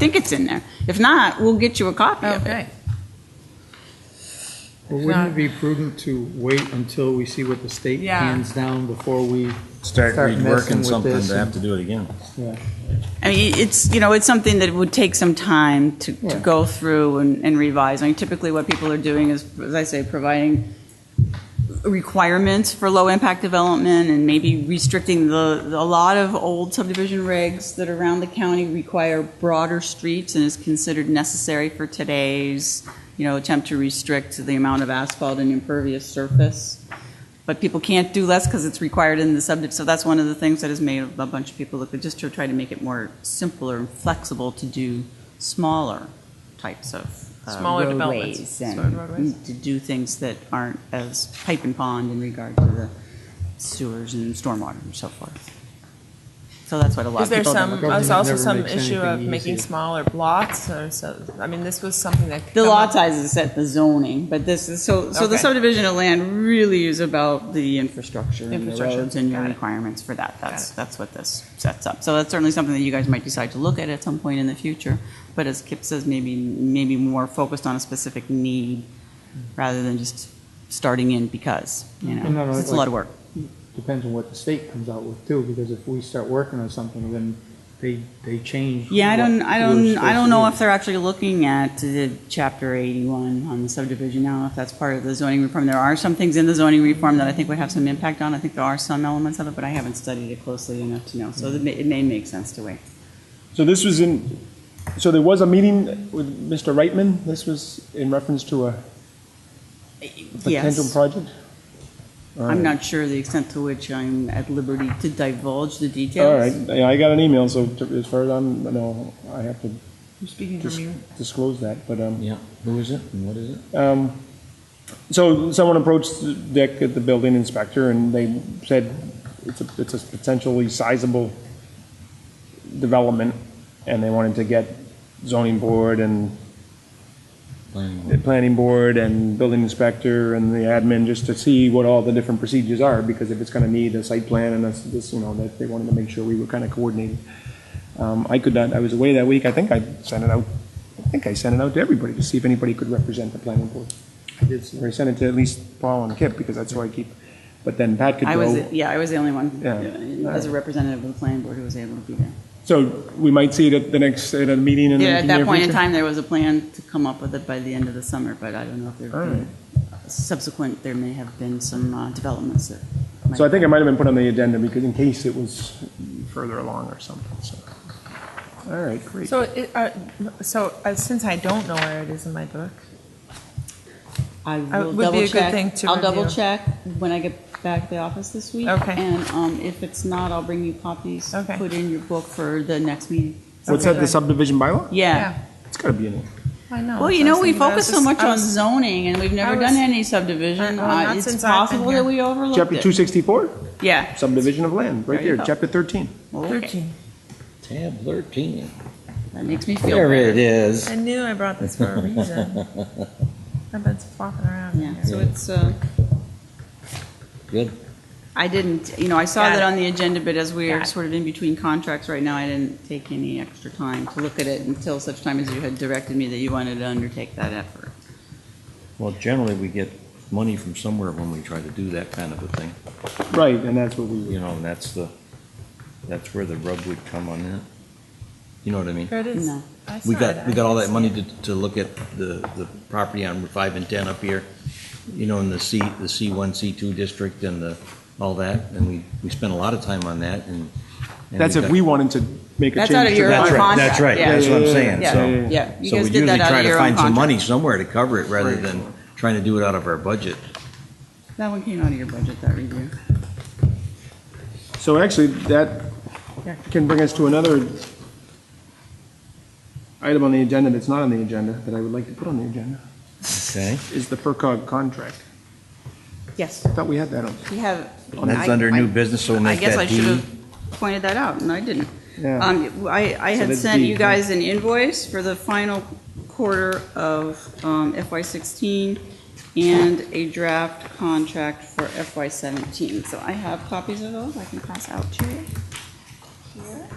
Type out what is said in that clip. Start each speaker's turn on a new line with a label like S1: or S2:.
S1: think it's in there. If not, we'll get you a copy of it.
S2: Okay.
S3: Well, wouldn't it be prudent to wait until we see what the state
S2: Yeah.
S3: hands down before we,
S4: Start
S3: Start messing
S4: reworking
S3: with
S4: something
S3: this
S4: to have
S3: and-
S4: to do it again.
S1: I mean, it's, you know, it's something that would take some time to, to
S3: Yeah.
S1: go through and, and revise. I mean, typically what people are doing is, as I say, providing requirements for low-impact development and maybe restricting the, a lot of old subdivision regs that around the county require broader streets and is considered necessary for today's, you know, attempt to restrict the amount of asphalt and impervious surface. But people can't do less because it's required in the subject, so that's one of the things that has made a bunch of people look, at just to try to make it more simpler and flexible to do smaller types of uh,
S2: Smaller developments,
S1: roadways
S2: smaller roadways.
S1: and mm, to do things that aren't as pipe and pond in regard to the sewers and stormwater and so forth. So that's what a lot
S2: Is
S1: of
S2: there
S1: people have been
S2: some,
S1: looking-
S2: there's also
S3: Government
S2: some
S3: never makes
S2: issue of
S3: anything
S2: making
S3: easy.
S2: smaller lots or so, I mean, this was something that. could
S1: The
S2: come
S1: lot
S2: up-
S1: size is set the zoning, but this is, so, so the
S2: Okay.
S1: subdivision of land really is about the infrastructure and the
S2: Infrastructure,
S1: roads and your
S2: got it.
S1: requirements for that. That's, that's what this sets up. So that's certainly something that you guys might decide to look at at some point in the future. But as Kip says, maybe, maybe more focused on a specific need rather than just starting in because, you
S3: And not
S1: know,
S3: only-
S1: it's a lot of work.
S3: depends on what the state comes out with too, because if we start working on something, then they, they change.
S1: Yeah, I don't,
S3: what
S1: I
S3: we're
S1: don't,
S3: supposed
S1: I
S3: to
S1: don't know
S3: do.
S1: if they're actually looking at the chapter eighty-one on the subdivision now, if that's part of the zoning reform. There are some things in the zoning reform that I think would have some impact on. I think there are some elements of it, but I haven't studied it closely enough to know. So it may, it may make sense to wait.
S5: So this was in, so there was a meeting with Mr. Reitman. This was in reference to a potential
S1: Yes,
S5: project?
S1: I'm not sure the extent to which I'm at liberty to divulge the
S5: All
S1: details.
S5: right, yeah, I got an email, so to- as far as I'm, no, I have to
S2: You're speaking
S5: dis-
S2: from your
S5: disclose that, but, um,
S4: Yeah, who is it and what is it?
S5: um, so someone approached Dick at the building inspector and they said it's a, it's a potentially sizable development and they wanted to get zoning board and
S4: Planning
S5: the
S4: board.
S5: planning board and building inspector and the admin, just to see what all the different procedures are, because if it's gonna need a site plan and that's, this, you know, that they wanted to make sure we were kind of coordinated. Um, I could not, I was away that week, I think I sent it out, I think I sent it out to everybody to see if anybody could represent the planning board.
S3: I did see
S5: Or I
S3: that.
S5: sent it to at least Paul and Kip, because that's who I keep, but then Pat could
S1: I was,
S5: go.
S1: yeah, I was the only one,
S5: Yeah.
S1: uh, as a representative of the planning board who was able to be there.
S5: So we might see it at the next, at a meeting in the
S1: Yeah,
S5: near
S1: at
S5: future?
S1: that point in time, there was a plan to come up with it by the end of the summer, but I don't know if there
S5: All
S1: have been subsequent, there may have been some uh, developments that might.
S5: So I think it might have been put on the agenda because in case it was further along or something, so. All right, great.
S2: So, it, uh, so uh, since I don't know where it is in my book,
S1: I
S2: I-
S1: will
S2: Uh, would be a
S1: double
S2: good
S1: check.
S2: thing to
S1: I'll double
S2: review.
S1: check when I get back to the office this week.
S2: Okay.
S1: And um, if it's not, I'll bring you copies. to
S2: Okay.
S1: Put in your book for the next meeting.
S5: What's
S2: Okay.
S5: that, the subdivision bylaw?
S1: Yeah.
S5: It's gotta be in it.
S2: I know.
S1: Well, you
S2: So I
S1: know,
S2: was
S1: we
S2: thinking, I was
S1: focus so
S2: just-
S1: much
S2: I
S1: on
S2: was-
S1: zoning, and we've never
S2: I
S1: done
S2: was-
S1: any subdivision.
S2: Uh, well, not
S1: Uh, It's
S2: since I've been
S1: possible that
S2: here.
S1: we overlooked it.
S5: Chapter two sixty-four,
S1: Yeah.
S5: subdivision of land, right
S1: There you
S5: there,
S1: go.
S5: chapter thirteen.
S1: Okay.
S2: Thirteen.
S4: Tab 13.
S1: That makes me feel
S4: There
S1: better.
S4: it is.
S2: I knew I brought this for a reason. I've been flopping around in
S1: Yeah, so
S2: here.
S1: it's, uh,
S4: Good.
S1: I didn't, you know, I saw
S2: Got
S1: that
S2: it.
S1: on the agenda, but as we are
S2: Got it.
S1: sort of in between contracts right now, I didn't take any extra time to look at it until such time as you had directed me that you wanted to undertake that effort.
S4: Well, generally, we get money from somewhere when we try to do that kind of a thing,
S5: Right, and that's what we,
S4: you know, and that's the, that's where the rub would come on that. You know what I mean?
S2: There it is.
S1: No.
S2: I
S4: We
S2: saw it.
S4: got, we
S2: I
S4: got all that
S2: see
S4: money
S2: it.
S4: to, to look at the, the property on five and ten up here, you know, in the C, the C one, C two district and the, all that, and we, we spent a lot of time on that and. and
S5: that's if
S4: got-
S5: we wanted to make a
S1: That's out of
S5: change to
S1: your
S4: That's
S1: own
S4: right,
S1: contract.
S5: that.
S4: that's right,
S1: yeah.
S4: that's what I'm saying,
S1: Yeah,
S4: so.
S1: Yeah, you
S4: So we
S1: guys did
S4: usually
S1: that out
S4: try
S1: of
S4: to
S1: your own
S4: find some
S1: contract.
S4: money somewhere to cover it rather than trying to do it out of our budget.
S1: That one came out of your budget, that review.
S5: So actually, that can bring us to another item on the agenda that's not on the agenda, that I would like to put on the agenda,
S4: Okay.
S5: is the FERCog contract.
S1: Yes,
S5: I thought we had that on.
S1: we have.
S4: That's
S1: I-
S4: under
S1: I-
S4: new business, so we'll
S1: I
S4: make
S1: guess I
S4: that
S1: should
S4: D.
S1: have pointed that out, and I didn't.
S5: Yeah.
S1: Um, I, I
S5: So
S1: had
S5: that's
S1: sent
S5: D,
S1: you
S5: huh?
S1: guys an invoice for the final quarter of FY sixteen and a draft contract for FY seventeen. So I have copies of those I can pass out to you. Here.